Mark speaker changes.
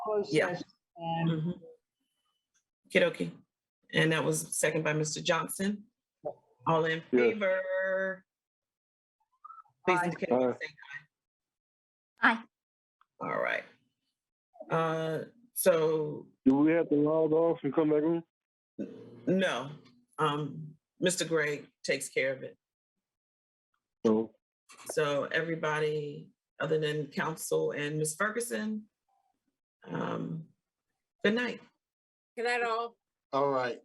Speaker 1: closed
Speaker 2: Yeah.
Speaker 1: session. And
Speaker 2: Mhm. Okey-dokey. And that was second by Mr. Johnson. All in
Speaker 3: Yes.
Speaker 2: favor? Please
Speaker 1: Aye.
Speaker 2: indicate by saying
Speaker 3: Aye.
Speaker 2: aye.
Speaker 4: Aye.
Speaker 2: All right. Uh, So,
Speaker 3: Do we have to log off and come back on?
Speaker 2: no, um, Mr. Gray takes care of it.
Speaker 3: No.
Speaker 2: So everybody, other than council and Ms. Ferguson, um, good night.
Speaker 5: Good night, all.
Speaker 6: All right.